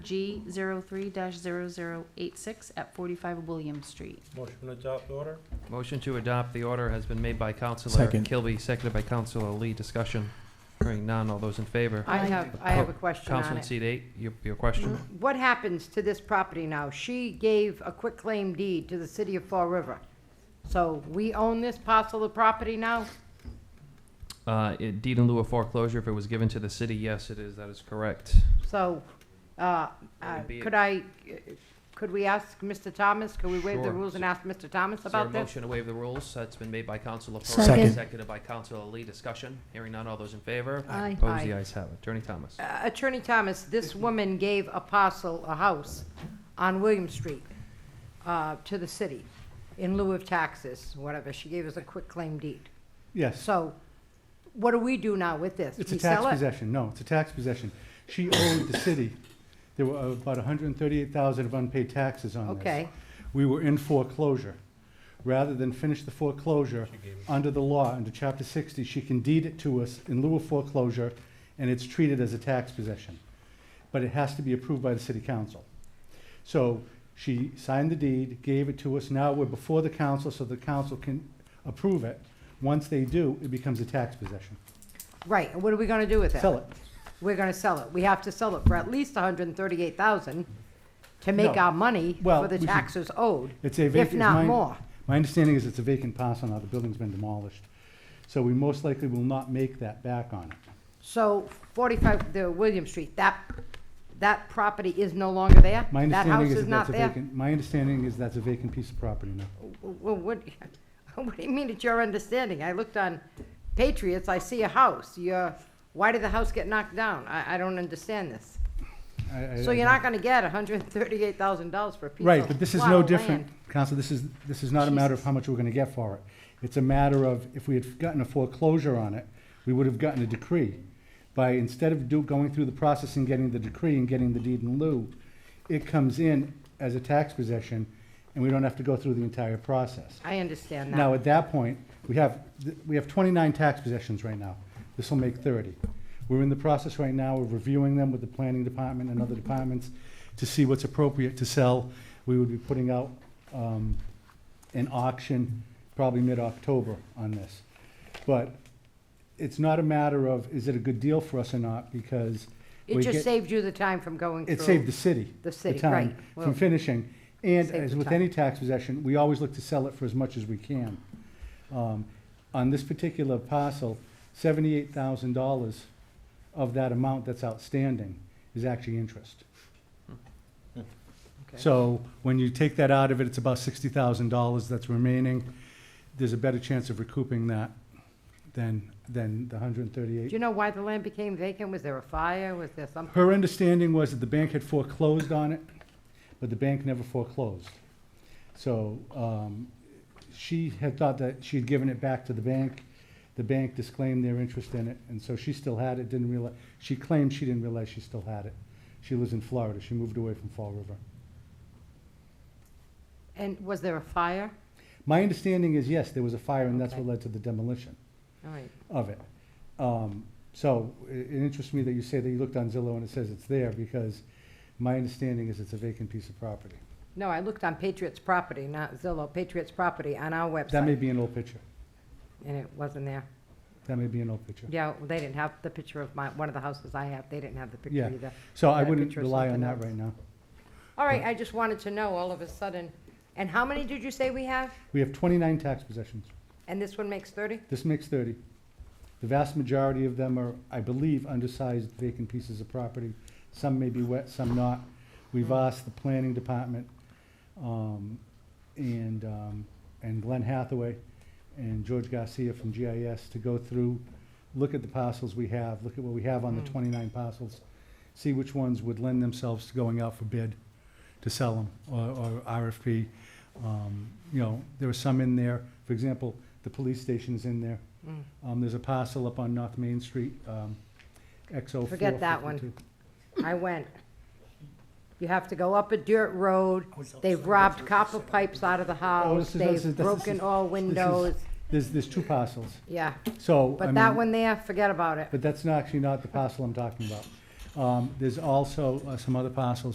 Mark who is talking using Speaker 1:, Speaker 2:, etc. Speaker 1: G 03-0086 at 45 William Street.
Speaker 2: Motion to adopt order?
Speaker 3: Motion to adopt the order has been made by Counselor
Speaker 4: Second.
Speaker 3: Kilby, seconded by Counselor Lee. Discussion. Hearing none. All those in favor?
Speaker 5: I
Speaker 6: Aye.
Speaker 5: have, I have a question on
Speaker 3: Counselor in
Speaker 5: it.
Speaker 3: seat eight, your, your question.
Speaker 5: What happens to this property now? She gave a quitclaim deed to the city of Fall River. So we own this parcel of property now? Mm-hmm.
Speaker 3: Uh, it- deed in lieu of foreclosure, if it was given to the city, yes, it is. That is correct.
Speaker 5: So, uh,
Speaker 3: That
Speaker 5: uh,
Speaker 3: would be it.
Speaker 5: could I, could we ask Mr. Thomas, could we waive the
Speaker 3: Sure.
Speaker 5: rules and ask Mr. Thomas
Speaker 3: Is there a
Speaker 5: about this?
Speaker 3: motion to waive the rules? That's been made by Counselor Pereira,
Speaker 4: Second.
Speaker 3: seconded by Counselor Lee. Discussion. Hearing none. All those in favor?
Speaker 6: Aye.
Speaker 3: Opposed? The
Speaker 5: Aye.
Speaker 3: ayes have it. Attorney Thomas.
Speaker 5: Uh, Attorney Thomas, this woman gave a parcel, a house, on William Street, uh, to the city in lieu of taxes, whatever. She gave us a quitclaim deed.
Speaker 4: Yes,
Speaker 5: So what do we do now with this?
Speaker 4: it's
Speaker 5: We
Speaker 4: a tax
Speaker 5: sell it?
Speaker 4: possession, no, it's a tax possession. She owed the city, there were about hundred and thirty-eight thousand of unpaid taxes on this.
Speaker 5: Okay,
Speaker 4: We were in foreclosure. Rather than finish the foreclosure,
Speaker 2: She gave us-
Speaker 4: under the law, under chapter sixty, she can deed it to us in lieu of foreclosure, and it's treated as a tax possession. But it has to be approved by the city council. So she signed the deed, gave it to us, now we're before the council, so the council can approve it. Once they do, it becomes a tax possession.
Speaker 5: right, and what are we gonna do with it?
Speaker 4: Sell it.
Speaker 5: We're gonna sell it, we have to sell it for at least hundred and thirty-eight thousand to make
Speaker 4: No.
Speaker 5: our money
Speaker 4: Well,
Speaker 5: for the
Speaker 4: we should-
Speaker 5: taxes owed,
Speaker 4: It's a vacant.
Speaker 5: if
Speaker 4: it's
Speaker 5: not
Speaker 4: mine-
Speaker 5: more.
Speaker 4: My understanding is it's a vacant parcel now, the building's been demolished. So we most likely will not make that back on it.
Speaker 5: So forty-five, the William Street, that, that property is no longer there?
Speaker 4: My
Speaker 5: That house
Speaker 4: understanding is
Speaker 5: is
Speaker 4: that
Speaker 5: not
Speaker 4: that's a
Speaker 5: there?
Speaker 4: vacant, my understanding is that's a vacant piece of property now.
Speaker 5: Well, what, what do you mean it's your understanding? I looked on Patriots, I see a house, you're, why did the house get knocked down? I, I don't understand this.
Speaker 4: I- I-
Speaker 5: So
Speaker 4: I
Speaker 5: you're
Speaker 4: don't-
Speaker 5: not gonna get hundred and thirty-eight thousand dollars for a piece of
Speaker 4: Right, but this is
Speaker 5: plowed
Speaker 4: no
Speaker 5: land.
Speaker 4: different, Counsel, this is, this is not a matter of how much we're gonna get for it. It's a matter of, if we had gotten a foreclosure on it, we would have gotten a decree. By, instead of do, going through the process and getting the decree and getting the deed in lieu, it comes in as a tax possession, and we don't have to go through the entire process.
Speaker 5: I understand
Speaker 4: Now,
Speaker 5: that.
Speaker 4: at that point, we have, th- we have twenty-nine tax possessions right now. This will make thirty. We're in the process right now of reviewing them with the planning department and other departments to see what's appropriate to sell. We would be putting out, um, an auction probably mid-October on this. But it's not a matter of, is it a good deal for us or not, because
Speaker 5: It
Speaker 4: we
Speaker 5: just
Speaker 4: get-
Speaker 5: saved you the time from going through.
Speaker 4: it saved the city.
Speaker 5: The city,
Speaker 4: town,
Speaker 5: right. Well,
Speaker 4: From finishing. And
Speaker 5: saved
Speaker 4: as
Speaker 5: the
Speaker 4: with
Speaker 5: town.
Speaker 4: any tax possession, we always look to sell it for as much as we can. Um, On this particular parcel, seventy-eight thousand dollars of that amount that's outstanding is actually interest.
Speaker 5: okay.
Speaker 4: So when you take that out of it, it's about sixty thousand dollars that's remaining. There's a better chance of recouping that than, than the hundred and
Speaker 5: Do
Speaker 4: thirty-eight.
Speaker 5: you know why the land became vacant? Was there a fire? Was there something?
Speaker 4: Her understanding was that the bank had foreclosed on it, but the bank never foreclosed. So um, she had thought that she had given it back to the bank. The bank disclaimed their interest in it, and so she still had it, didn't realize, she claimed she didn't realize she still had it. She lives in Florida. She moved away from Fall River.
Speaker 5: And was there a fire?
Speaker 4: My understanding is, yes, there was a fire, and that's what
Speaker 5: Okay.
Speaker 4: led to the demolition
Speaker 5: All right.
Speaker 4: of it. Um, So i- it interests me that you say that you looked on Zillow and it says it's there, because my understanding is it's a vacant piece of property.
Speaker 5: No, I looked on Patriots Property, not Zillow, Patriots Property on our
Speaker 4: That may
Speaker 5: website,
Speaker 4: be an old picture.
Speaker 5: and it wasn't there.
Speaker 4: That may be an old picture.
Speaker 5: Yeah, well, they didn't have the picture of my, one of the houses I have, they didn't have the
Speaker 4: Yeah.
Speaker 5: picture either.
Speaker 4: So I
Speaker 5: That
Speaker 4: wouldn't
Speaker 5: picture is
Speaker 4: rely on
Speaker 5: something
Speaker 4: that
Speaker 5: else.
Speaker 4: right now.
Speaker 5: All right, I just wanted to know all of a sudden. And how many did you say we have?
Speaker 4: We have 29 tax possessions.
Speaker 5: And this one makes thirty?
Speaker 4: This makes 30. The vast majority of them are, I believe, undersized vacant pieces of property. Some may be wet, some not. We've
Speaker 5: Mm.
Speaker 4: asked the planning department um, and, um, and Glenn Hathaway and George Garcia from GIS to go through, look at the parcels we have, look at what we have on the
Speaker 5: Mm.
Speaker 4: 29 parcels, see which ones would lend themselves to going out for bid to sell them or or RFP. Um, You know, there are some in there, for example, the police station's in there.
Speaker 5: Mm.
Speaker 4: Um, there's a parcel up on North Main Street, um, oh XO
Speaker 5: Forget that one. I went. You have to go up a dirt road. They've robbed copper pipes out of the
Speaker 4: Oh,
Speaker 5: house.
Speaker 4: this is- this
Speaker 5: They've
Speaker 4: is- this is-
Speaker 5: broken all windows.
Speaker 4: There's, there's two parcels,
Speaker 5: Yeah,
Speaker 4: so, I
Speaker 5: but that
Speaker 4: mean,
Speaker 5: one there, forget about it.
Speaker 4: but that's not, actually not the parcel I'm talking about. Um, there's also uh, some other parcels